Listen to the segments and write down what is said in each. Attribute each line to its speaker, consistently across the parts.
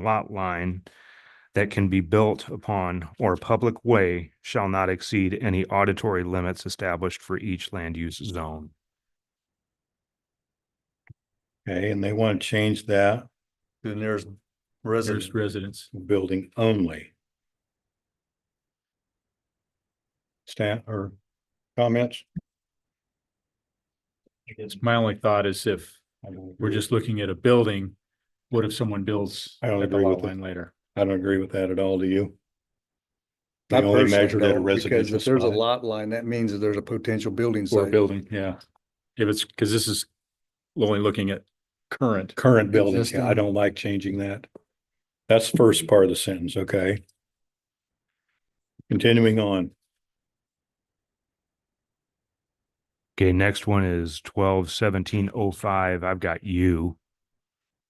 Speaker 1: lot line that can be built upon or a public way shall not exceed any auditory limits established for each land use zone.
Speaker 2: Okay, and they want to change that
Speaker 3: Then there's
Speaker 4: There's
Speaker 3: residents.
Speaker 4: residents.
Speaker 2: to building only. Stan or comments?
Speaker 4: It's my only thought is if we're just looking at a building, what if someone builds
Speaker 2: I don't
Speaker 4: at the
Speaker 2: agree
Speaker 4: lot
Speaker 2: with it.
Speaker 4: line later?
Speaker 2: I don't agree with that at all, do you? We
Speaker 3: Not
Speaker 2: only
Speaker 3: personally,
Speaker 2: measured at a
Speaker 3: no, because
Speaker 2: residential
Speaker 3: If there's a
Speaker 2: spot.
Speaker 3: lot line, that means that there's a potential building
Speaker 4: Or a
Speaker 3: site.
Speaker 4: building, yeah. If it's, because this is only looking at current.
Speaker 2: Current buildings, yeah, I
Speaker 3: Existing.
Speaker 2: don't like changing that. That's the first part of the sentence, okay? Continuing on,
Speaker 1: Okay, next one is twelve seventeen oh five. I've got U.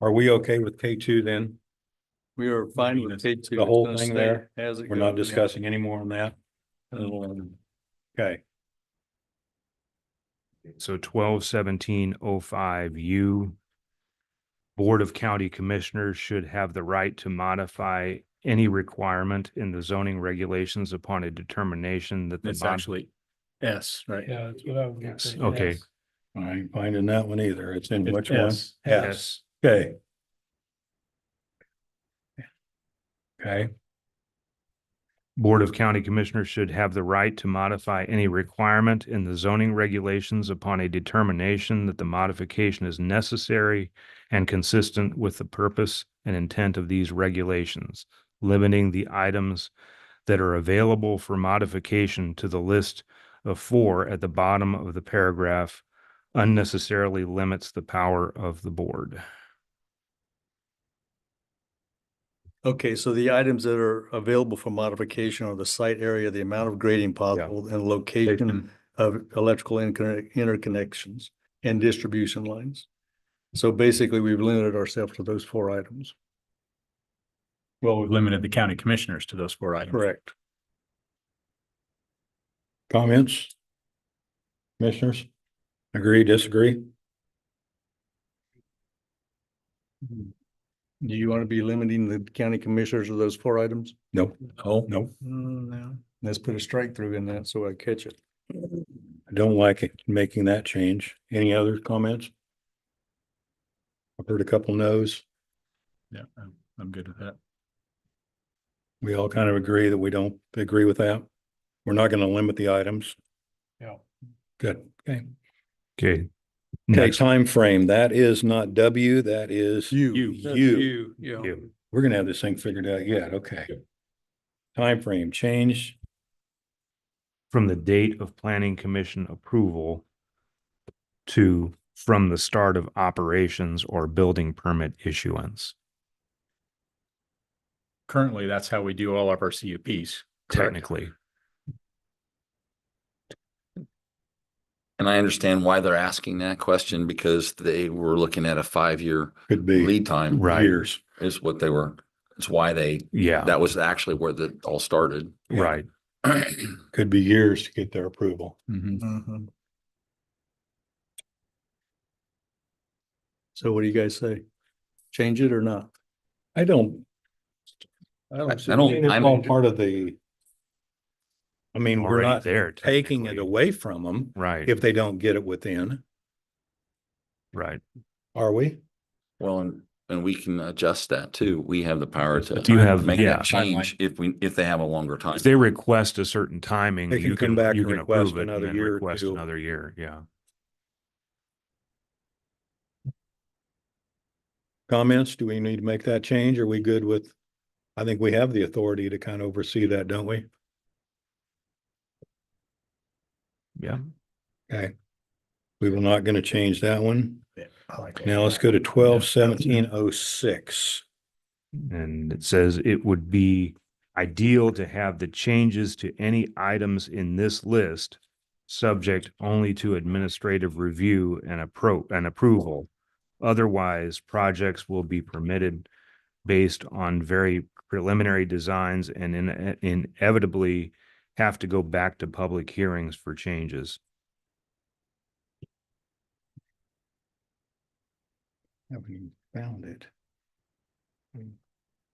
Speaker 2: are we okay with K two then?
Speaker 3: We are fine with K two.
Speaker 2: The whole thing there,
Speaker 3: As it
Speaker 2: We're not
Speaker 3: goes, yeah.
Speaker 2: discussing any more on that,
Speaker 3: Um,
Speaker 2: okay?
Speaker 1: So twelve seventeen oh five U. Board of County Commissioners should have the right to modify any requirement in the zoning regulations upon a determination that the
Speaker 4: It's
Speaker 1: mod-
Speaker 4: actually S, right?
Speaker 5: Yeah, that's what I would.
Speaker 1: Yes,
Speaker 5: think,
Speaker 1: okay.
Speaker 5: yes.
Speaker 2: I ain't finding that one either, it's in
Speaker 4: It's
Speaker 2: which one?
Speaker 4: S.
Speaker 2: Yes,
Speaker 1: Yes.
Speaker 2: okay. Okay.
Speaker 1: Board of County Commissioners should have the right to modify any requirement in the zoning regulations upon a determination that the modification is necessary and consistent with the purpose and intent of these regulations, limiting the items that are available for modification to the list of four at the bottom of the paragraph unnecessarily limits the power of the board.
Speaker 3: Okay, so the items that are available for modification are the site area, the amount of grading possible, and location
Speaker 4: Location.
Speaker 3: of electrical interconnect, interconnections and distribution lines. So basically, we've limited ourselves to those four items.
Speaker 4: Well, we've limited the county commissioners to those four items.
Speaker 3: Correct.
Speaker 2: Comments? Commissioners? Agree, disagree?
Speaker 3: Mm-hmm. Do you want to be limiting the county commissioners to those four items?
Speaker 2: Nope.
Speaker 4: Oh,
Speaker 2: Nope.
Speaker 3: Mm, No. Let's put a strike through in that so I catch it.
Speaker 2: I don't like it, making that change. Any other comments? I've heard a couple no's.
Speaker 4: yeah, I'm, I'm good with that.
Speaker 2: We all kind of agree that we don't agree with that. We're not going to limit the items.
Speaker 5: Yeah.
Speaker 2: Good. Okay.
Speaker 1: Okay.
Speaker 2: Okay,
Speaker 1: Next.
Speaker 2: time frame. That is not W, that is
Speaker 3: You.
Speaker 2: That's You.
Speaker 5: yeah.
Speaker 1: You.
Speaker 2: We're gonna have this thing figured out yet. Okay. Time frame change.
Speaker 1: from the date of planning commission approval to from the start of operations or building permit issuance.
Speaker 4: Currently, that's how we do all of our CUPs. correct?
Speaker 1: Technically,
Speaker 6: And I understand why they're asking that question because they were looking at a five-year
Speaker 2: could be
Speaker 6: lead time
Speaker 1: right,
Speaker 2: years.
Speaker 6: is what they were, it's why they,
Speaker 1: yeah,
Speaker 6: that was actually where that all started.
Speaker 2: yeah.
Speaker 1: right.
Speaker 2: Could be years to get their approval.
Speaker 3: Mm-hmm.
Speaker 4: Mhm.
Speaker 3: So what do you guys say? Change it or not?
Speaker 2: I don't.
Speaker 6: I
Speaker 2: see-
Speaker 6: don't-
Speaker 2: mean, it's
Speaker 6: I'm-
Speaker 2: all part of the. I mean, we're
Speaker 1: Already
Speaker 2: not
Speaker 1: there.
Speaker 2: taking it
Speaker 1: technically.
Speaker 2: away from them
Speaker 1: Right,
Speaker 2: if they don't get it within,
Speaker 1: right.
Speaker 2: are we?
Speaker 6: Well, and, and we can adjust that too. We have the power to
Speaker 1: You have-
Speaker 6: make
Speaker 1: yeah.
Speaker 6: that change if we, if they have a longer time.
Speaker 1: If they request a certain timing,
Speaker 2: They can
Speaker 1: you
Speaker 2: come
Speaker 1: can,
Speaker 2: back
Speaker 1: you
Speaker 2: and
Speaker 1: can
Speaker 2: request
Speaker 1: approve it and
Speaker 2: another
Speaker 1: then
Speaker 2: year or
Speaker 1: request
Speaker 2: two.
Speaker 1: another year, yeah.
Speaker 2: Comments? Do we need to make that change? Are we good with? I think we have the authority to kind of oversee that, don't we?
Speaker 1: Yeah.
Speaker 2: Okay. We were not going to change that one.
Speaker 3: I like
Speaker 2: Now let's go to twelve seventeen oh six.
Speaker 1: And it says it would be ideal to have the changes to any items in this list subject only to administrative review and appro, and approval. Otherwise, projects will be permitted based on very preliminary designs and in- inevitably have to go back to public hearings for changes.
Speaker 2: Haven't even found it.